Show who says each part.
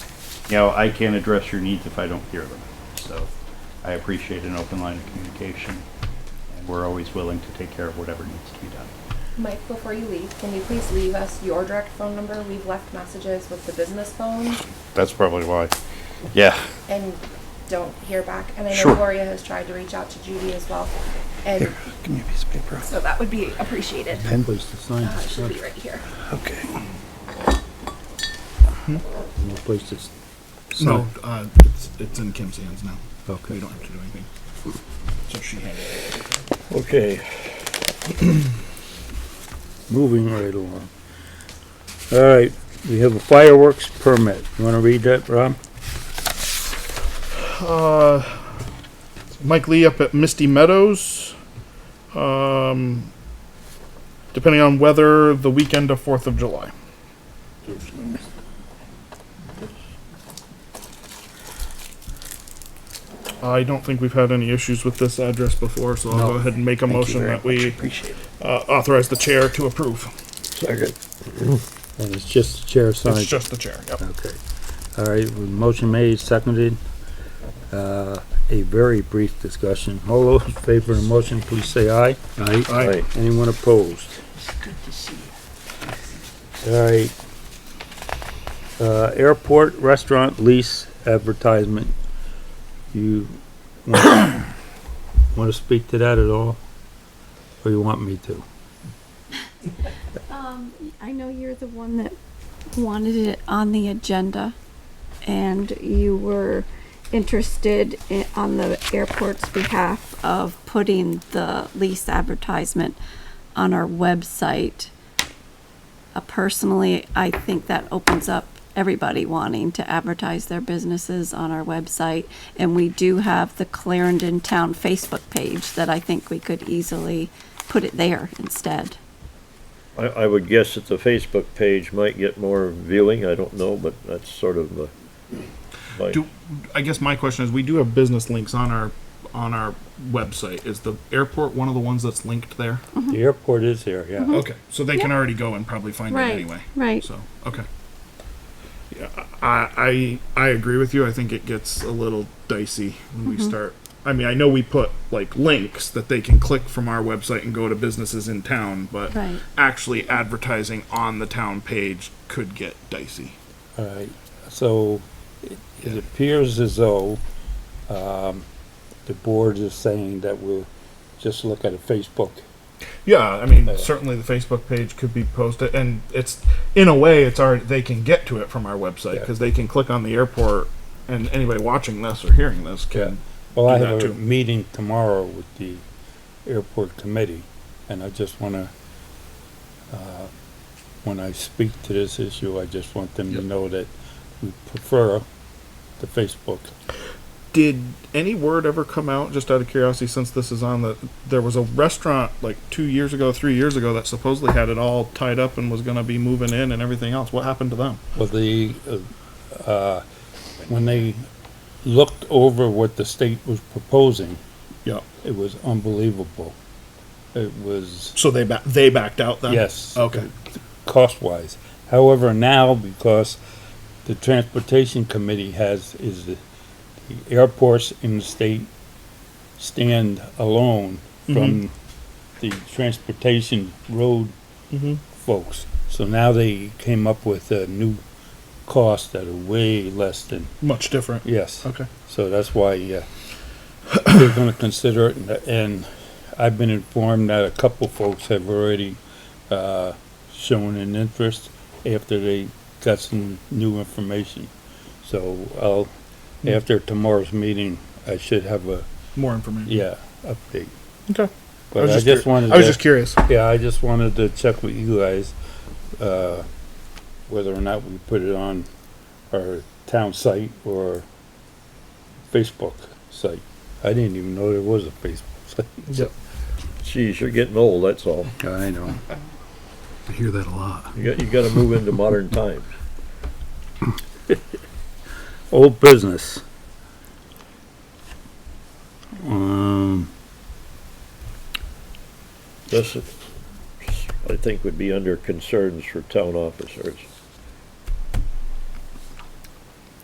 Speaker 1: you know, I can't address your needs if I don't hear them. So I appreciate an open line of communication, and we're always willing to take care of whatever needs to be done.
Speaker 2: Mike, before you leave, can you please leave us your direct phone number? We've left messages with the business phone
Speaker 1: That's probably why. Yeah.
Speaker 2: and don't hear back. And I know
Speaker 1: Sure.
Speaker 2: Gloria has tried to reach out to Judy as well. And
Speaker 3: Here, give me a piece of paper.
Speaker 2: so that would be appreciated.
Speaker 3: Pen?
Speaker 4: Place to sign,
Speaker 2: Uh, it
Speaker 4: it's
Speaker 2: should
Speaker 4: not
Speaker 2: be right here.
Speaker 3: Okay.
Speaker 4: no place to s-
Speaker 5: No,
Speaker 4: sign.
Speaker 5: uh, it's, it's in Kim's hands now.
Speaker 4: Okay.
Speaker 5: We don't have to do anything. So she handed it.
Speaker 3: Okay.
Speaker 4: Moving right along. All right, we have a fireworks permit. You wanna read that, Rob?
Speaker 5: Uh, Mike Lee up at Misty Meadows. Um, depending on weather, the weekend of 4th of July. I don't think we've had any issues with this address before, so I'll
Speaker 3: No.
Speaker 5: go ahead and make a
Speaker 3: Thank you
Speaker 5: motion
Speaker 3: very
Speaker 5: that we
Speaker 3: much. Appreciate it.
Speaker 5: uh, authorize the chair to approve.
Speaker 3: Second.
Speaker 4: And it's just the chair
Speaker 5: It's
Speaker 4: signs.
Speaker 5: just the chair. Yep.
Speaker 4: Okay. All right, well, motion made, seconded. Uh, a very brief discussion. All those in favor of the motion, please say aye. Aye.
Speaker 5: Aye.
Speaker 4: Anyone opposed? All right. Uh, airport restaurant lease advertisement. You want to speak to that at all? Or you want me to?
Speaker 6: Um, I know you're the one that wanted it on the agenda, and you were interested i on the airport's behalf of putting the lease advertisement on our website. Uh, personally, I think that opens up everybody wanting to advertise their businesses on our website, and we do have the Clarendon Town Facebook page that I think we could easily put it there instead.
Speaker 7: I, I would guess that the Facebook page might get more viewing, I don't know, but that's sort of uh, the. my-
Speaker 5: Do, I guess my question is, we do have business links on our, on our website. Is the airport one of the ones that's linked there?
Speaker 6: Mm-hmm.
Speaker 4: The airport is there, yeah.
Speaker 5: Okay, so they can already go and probably find it anyway.
Speaker 6: Right.
Speaker 5: So, okay. Yeah, I, I, I agree with you. I think it gets a little dicey when
Speaker 6: Mm-hmm.
Speaker 5: we start. I mean, I know we put like links that they can click from our website and go to businesses in town, but
Speaker 6: Right.
Speaker 5: actually advertising on the town page could get dicey.
Speaker 4: All right, so it- it appears as though um, the board is saying that we'll just look at a Facebook.
Speaker 5: Yeah, I mean,
Speaker 4: Yeah.
Speaker 5: certainly the Facebook page could be posted, and it's in a way, it's already they can get to it from our website
Speaker 4: Yeah.
Speaker 5: because they can click on the airport, and anybody watching this or hearing this can.
Speaker 4: Well, I
Speaker 5: Do that
Speaker 4: have a
Speaker 5: too.
Speaker 4: meeting tomorrow with the airport committee, and I just want to, when I speak to this issue, I just want them to know that we prefer the Facebook.
Speaker 5: Did any word ever come out, just out of curiosity, since this is on the? There was a restaurant like two years ago, three years ago, that supposedly had it all tied up and was going to be moving in and everything else. What happened to them?
Speaker 4: Well, the, uh, uh, when they looked over what the state was proposing,
Speaker 5: Yeah.
Speaker 4: It was unbelievable. It was
Speaker 5: So they ba- they backed out then.
Speaker 4: yes,
Speaker 5: Okay.
Speaker 4: cost wise. However, now because the transportation committee has is the, the airports in the state stand alone from the transportation road
Speaker 5: Mm-hmm.
Speaker 4: folks. So now they came up with a new cost that are way less than
Speaker 5: Much different.
Speaker 4: yes.
Speaker 5: Okay.
Speaker 4: So that's why uh, they're going to consider it, and, and I've been informed that a couple folks have already uh, shown an interest after they got some new information. So I'll,
Speaker 5: Hmm.
Speaker 4: after tomorrow's meeting, I should have a,
Speaker 5: More information.
Speaker 4: yeah, update.
Speaker 5: Okay.
Speaker 4: But I
Speaker 5: curi-
Speaker 4: just wanted
Speaker 5: I was
Speaker 4: to-
Speaker 5: just curious.
Speaker 4: yeah, I just wanted to check with you guys, uh, whether or not we put it on our town site or Facebook site. I didn't even know there was a Facebook site.
Speaker 7: Geez, you're getting old, that's all.
Speaker 4: I know.
Speaker 3: I hear that a lot.
Speaker 7: You got, you gotta move into modern times.
Speaker 4: Old business. Um,
Speaker 7: This, I think, would be under concerns for town officers.